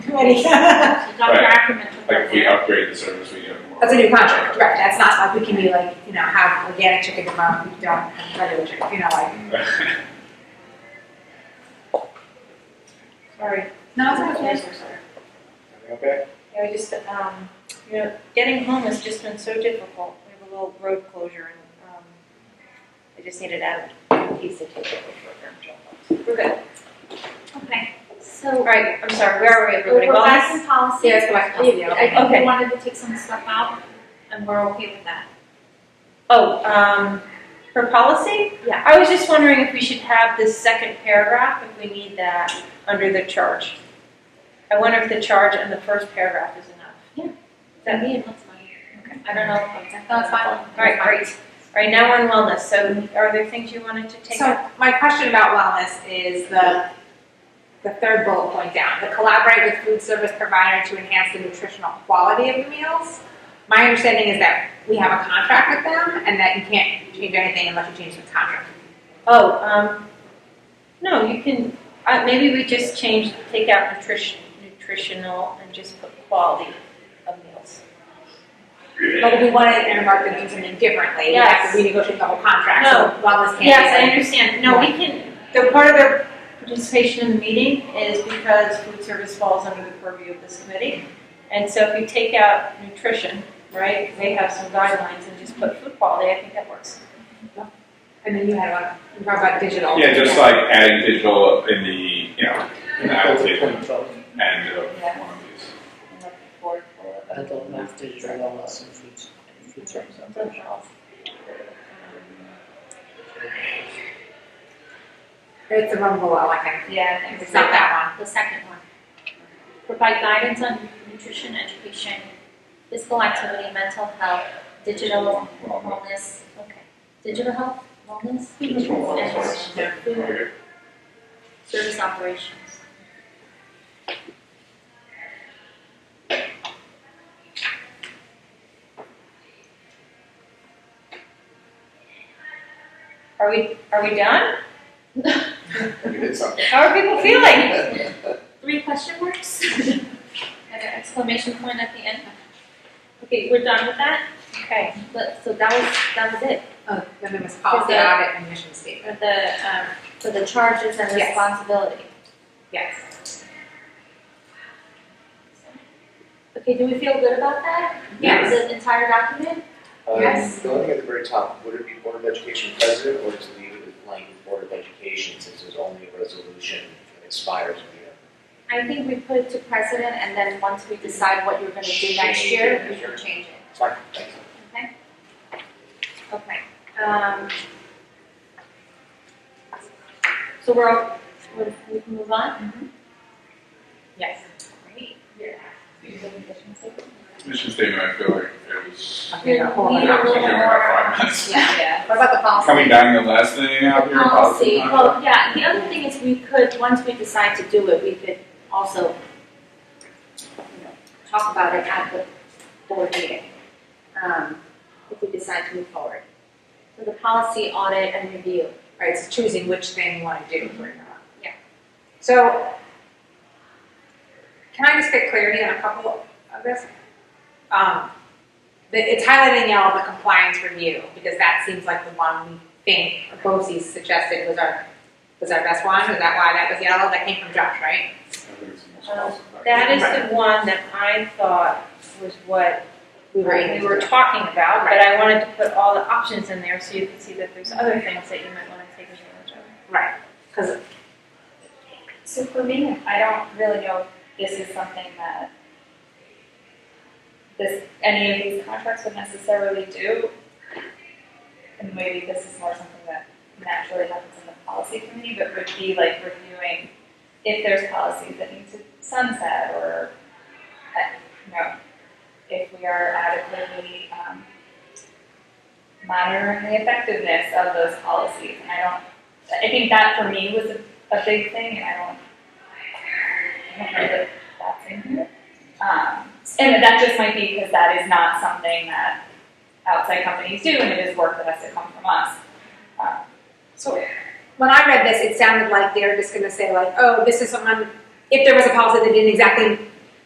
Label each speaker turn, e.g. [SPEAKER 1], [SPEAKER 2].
[SPEAKER 1] committee. That's
[SPEAKER 2] Dr.
[SPEAKER 3] Right.
[SPEAKER 2] Ackerman took
[SPEAKER 3] Like
[SPEAKER 2] that
[SPEAKER 3] if we
[SPEAKER 2] there.
[SPEAKER 3] upgrade the service, we get more.
[SPEAKER 1] a new contract, right, that's not like, we can be like, you know, have organic chicken tomorrow, we don't have regular chicken, you know, like,
[SPEAKER 4] Sorry.
[SPEAKER 1] no, it's okay.
[SPEAKER 5] Okay,
[SPEAKER 4] Yeah, we just, um, you know, getting home has just been so difficult. We have a little road closure and, um, I just needed to add a piece of tape over program jump We're good.
[SPEAKER 2] Okay,
[SPEAKER 4] All
[SPEAKER 2] so
[SPEAKER 4] right, I'm sorry, where are we, everybody?
[SPEAKER 2] we're back
[SPEAKER 4] Wellness?
[SPEAKER 2] in policy.
[SPEAKER 1] Yeah, let's go back to policy, yeah.
[SPEAKER 2] I think
[SPEAKER 4] Okay.
[SPEAKER 2] we wanted to take some stuff out, and we're okay with that.
[SPEAKER 4] Oh, um, for policy?
[SPEAKER 2] Yeah.
[SPEAKER 4] I was just wondering if we should have this second paragraph, if we need that under the charge. I wonder if the charge and the first paragraph is enough.
[SPEAKER 2] That me and what's my.
[SPEAKER 4] I don't know. if I'm-
[SPEAKER 2] No, it's fine.
[SPEAKER 4] All right, great. All right, now we're in wellness, so are there things you wanted to take out?
[SPEAKER 1] So my question about wellness is the, the third bullet point down, the collaborate with food service provider to enhance the nutritional quality of the meals. My understanding is that we have a contract with them and that you can't change anything unless you change the contract.
[SPEAKER 4] Oh, um, no, you can, uh, maybe we just change, take out nutrition, nutritional and just put quality of meals.
[SPEAKER 1] But if we wanted to earmark them do something differently, we have to renegotiate the whole contract, so wellness can't be
[SPEAKER 4] Yes, I
[SPEAKER 1] like-
[SPEAKER 4] understand. No, we can, the part of their participation in the meeting is because food service falls under the purview of this committee. And so if you take out nutrition, right, they have some guidelines and just put food quality, I think that works.
[SPEAKER 1] And then you had one, you talked about digital.
[SPEAKER 3] Yeah, just like adding digital in the, you know, in the Apple table and of
[SPEAKER 4] Yeah.
[SPEAKER 3] one of these.
[SPEAKER 4] I'm looking forward for that.
[SPEAKER 6] Adult math, digital wellness, and food, and food service.
[SPEAKER 4] Something else.
[SPEAKER 1] It's the one below, I think.
[SPEAKER 4] Yeah, I think
[SPEAKER 1] It's not that
[SPEAKER 2] The second one. Provide guidance on nutrition education, physical activity, mental health, digital
[SPEAKER 3] Well,
[SPEAKER 2] wellness, okay, digital health, wellness,
[SPEAKER 3] Just one of those ones.
[SPEAKER 2] and food
[SPEAKER 3] Okay.
[SPEAKER 2] service operations.
[SPEAKER 4] Are we, are we done?
[SPEAKER 5] we did something.
[SPEAKER 4] How are people feeling?
[SPEAKER 2] Three question marks? And an exclamation point at the end. Okay, we're done with that,
[SPEAKER 4] Okay,
[SPEAKER 2] but, so that was, that was it,
[SPEAKER 1] one. Oh, then there was policy
[SPEAKER 2] Is that-
[SPEAKER 1] audit and mission statement.
[SPEAKER 2] for the, um, for the charges and
[SPEAKER 1] Yes.
[SPEAKER 2] responsibility.
[SPEAKER 1] Yes.
[SPEAKER 2] Okay, do we feel good about that?
[SPEAKER 1] Yes.
[SPEAKER 2] The entire document?
[SPEAKER 5] Um,
[SPEAKER 1] Yes.
[SPEAKER 5] Going at the very top, would it be Board of Education president or to leave it with blank Board of Education since there's only a resolution that expires in a year?
[SPEAKER 2] I think we put it to precedent, and then once we decide what you're gonna do next
[SPEAKER 5] Change
[SPEAKER 2] year,
[SPEAKER 5] it.
[SPEAKER 2] we can change it,
[SPEAKER 5] Fine, thanks.
[SPEAKER 2] okay? Okay, um. So we're, all- we we can move on?
[SPEAKER 1] Yes.
[SPEAKER 2] Great.
[SPEAKER 3] Mission statement, I feel like it was,
[SPEAKER 1] Okay, the whole
[SPEAKER 2] We
[SPEAKER 3] I
[SPEAKER 2] need
[SPEAKER 1] thing.
[SPEAKER 2] a
[SPEAKER 3] think we
[SPEAKER 2] little
[SPEAKER 3] only
[SPEAKER 2] more-
[SPEAKER 3] had five minutes.
[SPEAKER 1] Yeah,
[SPEAKER 2] Yeah.
[SPEAKER 1] what about the policy?
[SPEAKER 3] Coming down the last thing out here.
[SPEAKER 2] Policy, well, yeah, the other thing is we could, once we decide to do it, we could also, you know, talk about it at the board meeting, um, if we decide to move forward. So the policy audit and review.
[SPEAKER 1] Right, it's choosing which thing you want to do for your own.
[SPEAKER 2] Yeah.
[SPEAKER 1] So, can I just get clarity on a couple of this? Um, the, it's highlighting yellow the compliance review, because that seems like the one we think Bosse's suggested was our, was our best one, is that why that was yellow? That came from Josh, right?
[SPEAKER 3] I think it's the most
[SPEAKER 4] Um,
[SPEAKER 3] positive.
[SPEAKER 4] that is the one that I thought was what
[SPEAKER 1] We were.
[SPEAKER 4] Uh, we were talking about, but I wanted to put all the options in there so you could see that there's other things that you might want to take advantage of.
[SPEAKER 1] Right, because,
[SPEAKER 7] So for me, I don't really know if this is something that this, any of these contracts would necessarily do. And maybe this is more something that naturally happens in the policy committee, but would be like reviewing if there's policies that need to sunset or, uh, you know, if we are adequately, um, monitoring the effectiveness of those policies. And I don't, I think that for me was a a big thing, and I don't, I don't know that that's in here. Um, and that just might be because that is not something that outside companies do, and it is work that has to come from us. Um,
[SPEAKER 1] so, when I read this, it sounded like they were just gonna say like, oh, this is someone, if there was a policy that didn't exactly